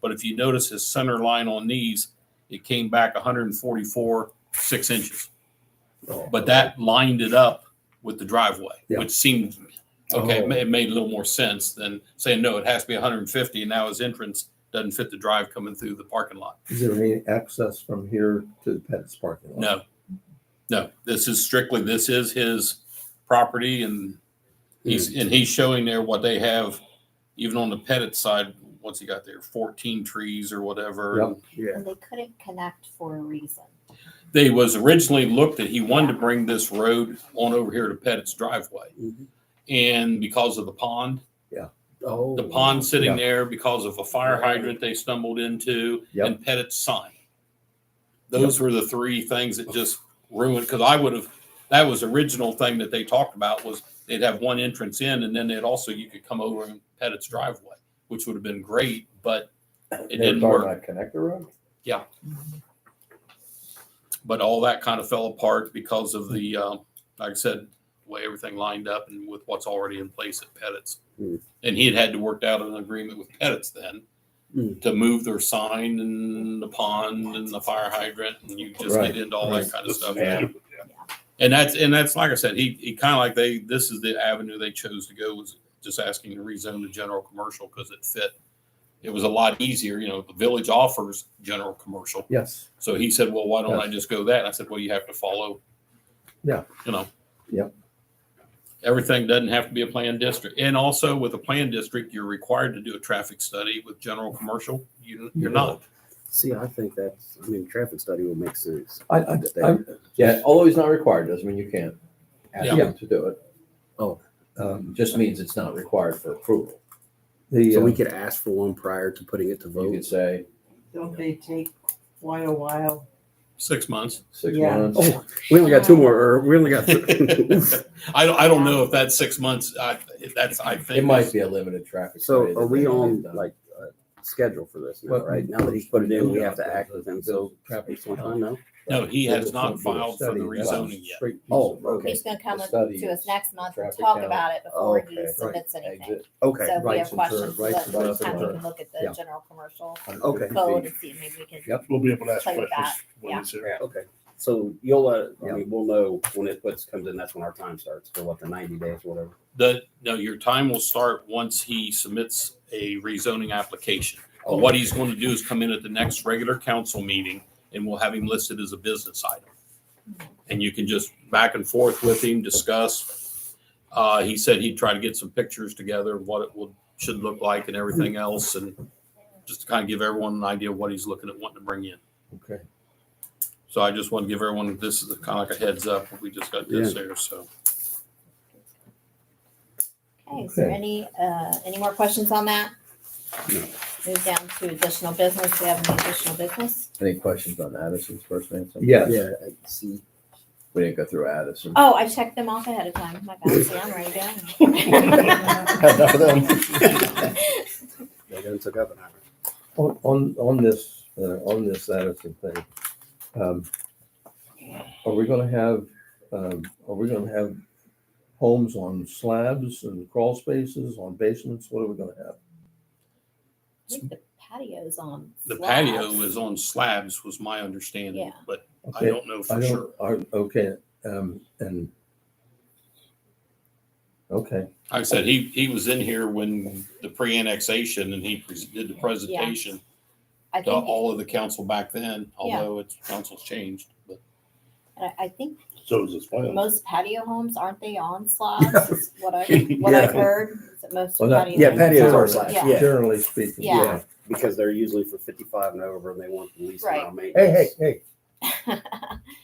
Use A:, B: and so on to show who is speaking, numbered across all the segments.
A: But if you notice his center line on these, it came back 144 six inches.
B: Oh,
A: But that lined it up with the driveway,
B: Yeah.
A: which seemed okay.
B: Oh.
A: It ma- It made a little more sense than saying no. It has to be 150, and now his entrance doesn't fit the drive coming through the parking lot.
B: Is there any access from here to the Pettit's parking lot?
A: No, no. This is strictly this is his property, and he's
B: Hmm.
A: and he's showing there what they have, even on the Pettit side. What's he got there? Fourteen trees or whatever.
B: Yep.
C: And they couldn't connect for a reason.
A: They was originally looked at. He wanted to bring this road on over here to Pettit's driveway,
B: Mm-hmm.
D: Mhm.
A: and because of the pond,
D: Oh.
A: the pond sitting
B: Yeah.
A: there because of a fire
D: Right.
A: hydrant they stumbled into
B: Yep.
A: and Pettit's sign. Those were the three things that just ruined because I would have that was the original thing that they talked about was they'd have one entrance in and then they'd also you could come over and Pettit's driveway, which would have been great, but it
B: They were
A: didn't
B: talking
A: work.
B: about Connector Road?
A: But all that kind of fell apart because of the uh, like I said, the way everything lined up and with what's already in place at Pettit's.
B: Hmm.
A: And he had had to work out an agreement with Pettit's then
D: Hmm.
A: to move their sign and the pond and the fire hydrant and you just
B: Right,
A: get into all
B: right.
A: that kind of stuff.
B: Yeah.
A: And that's and that's like I said, he he kind of like they this is the avenue they chose to go was just asking to rezone to general commercial because it fit. It was a lot easier, you know. The village offers general commercial,
B: Yes.
A: so he said, "Well, why don't I
B: Yes.
A: just go that?" And I said, "Well, you have to follow."
B: Yeah.
A: You know.
B: Yep.
A: Everything doesn't have to be a planned district, and also with a planned district, you're required to do a traffic study. With general commercial, you you're not.
D: See, I think that's, I mean, traffic study will make sense.
B: I, I, I,
D: There.
E: Yeah, although he's not required, doesn't mean you can't ask
A: Yeah.
B: Yeah.
E: him to do it.
B: um,
E: Just means it's not required for approval.
B: the,
D: So we
B: uh,
D: could ask for one prior to putting it to
E: You could
D: vote.
E: say
F: Don't they take quite a while?
A: Six months.
E: six
F: Yeah.
E: months.
D: Oh, we only got two more, or we only got. th-
A: I don't, I don't know if that's six months. I, that's, I think.
E: It might be a limited traffic.
D: So
E: study that
D: are we
E: they need
D: on
E: done.
D: like a schedule for this now,
B: What-
D: right? Now that he's put it in, we have to act with him. So
E: Traffic
D: it's one
E: study.
D: time now.
A: No, he has not
B: Some sort of
A: filed for the
B: study, that's
A: rezoning yet.
B: straight piece
D: Oh,
B: of road.
D: okay.
C: He's gonna come
E: The
C: with-
E: study
C: to us
E: is
C: next month and
E: traffic
C: talk
E: count.
C: about it before
D: Okay,
C: he
D: right.
C: submits anything.
E: Exit.
D: Okay,
C: So if we
B: rights
C: have
B: and turn- rights
C: questions, let-
B: and
C: next
B: left and
C: time we
B: right.
C: can look at
B: Yeah.
C: the general commercial
E: 150
C: code
E: feet.
C: and see, if maybe we can.
B: Yep.
G: We'll be able to ask
C: Play with
G: questions
C: that,
G: when it's there.
D: okay. So you'll let, I
B: Yeah.
D: mean, we'll know when it puts, comes in, that's when our time starts, for what, the ninety days, whatever.
A: The, no, your time will start once he submits a rezoning application. But what he's going to do is come in at the next regular council meeting and we'll have him listed as a business item. And you can just back and forth with him, discuss. Uh, he said he'd try to get some pictures together, of what it would, should look like and everything else and just to kind of give everyone an idea of what he's looking at wanting to bring in.
B: Okay.
A: So I just want to give everyone, this is kind of like a heads up, we just got this there, so.
C: Okay, is there
B: Okay.
C: any, uh, any more questions on that? Move down to additional business. We have any additional business?
E: Any questions on Addison's first name?
B: Yes,
D: Yeah, I see.
E: We didn't go through Addison.
C: Oh, I checked them off ahead of time. My bad. See, I'm ready to
E: Had enough of
B: um,
E: them.
C: go.
D: They done took up an hour.
B: on, on, on this, uh, on this Addison thing. um, Are we gonna have, um, are we gonna have homes on slabs and crawl spaces, on basements? What are we gonna have?
C: I think the patio's on.
A: The patio
C: slabs.
A: was on slabs was my understanding,
C: Yeah.
A: but I
B: Okay.
A: don't know
B: I
A: for sure.
B: don't, I- okay, um, and. Okay,
A: Like I said, he, he was in here when the pre-annexation and he pres- did the presentation
C: I
A: to
C: think,
A: all of the council back then, although it's, council's changed, but
C: I- I think
G: So is this plan.
C: most patio homes, aren't they on slabs? Is What I, what I've
D: Yeah.
C: heard, is that most
B: Well, that-
C: patios.
D: Yeah, patios are
C: on
D: slabs,
C: Yeah.
D: yeah.
B: generally speaking,
C: Yeah.
B: yeah.
D: Because they're usually for fifty-five and over and they want the least amount of
B: Hey,
D: maintenance.
B: hey, hey,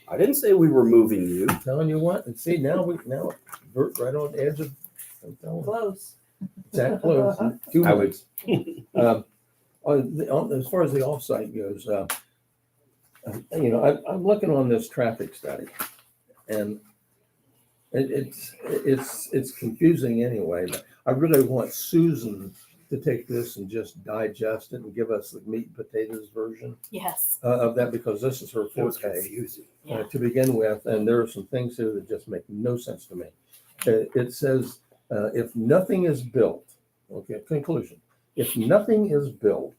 D: I didn't say we were moving you.
B: telling you what, and see, now we, now, we're right on the edge of. I'm telling you.
F: Close.
B: That close. in Two
E: I would-
B: minutes. Um, on the- on- As far as the offsite goes, uh, um, you know, I'm, I'm looking on this traffic study and it, it's, it's, it's confusing anyway, but I really want Susan to take this and just digest it and give us the meat and potatoes version
C: Yes.
B: uh, of that because this is her
D: It was
B: forte
D: confusing.
B: uh, to begin with, and there are some things here that just make no sense to me. Uh, It says, uh, if nothing is built, okay, conclusion, if nothing is built,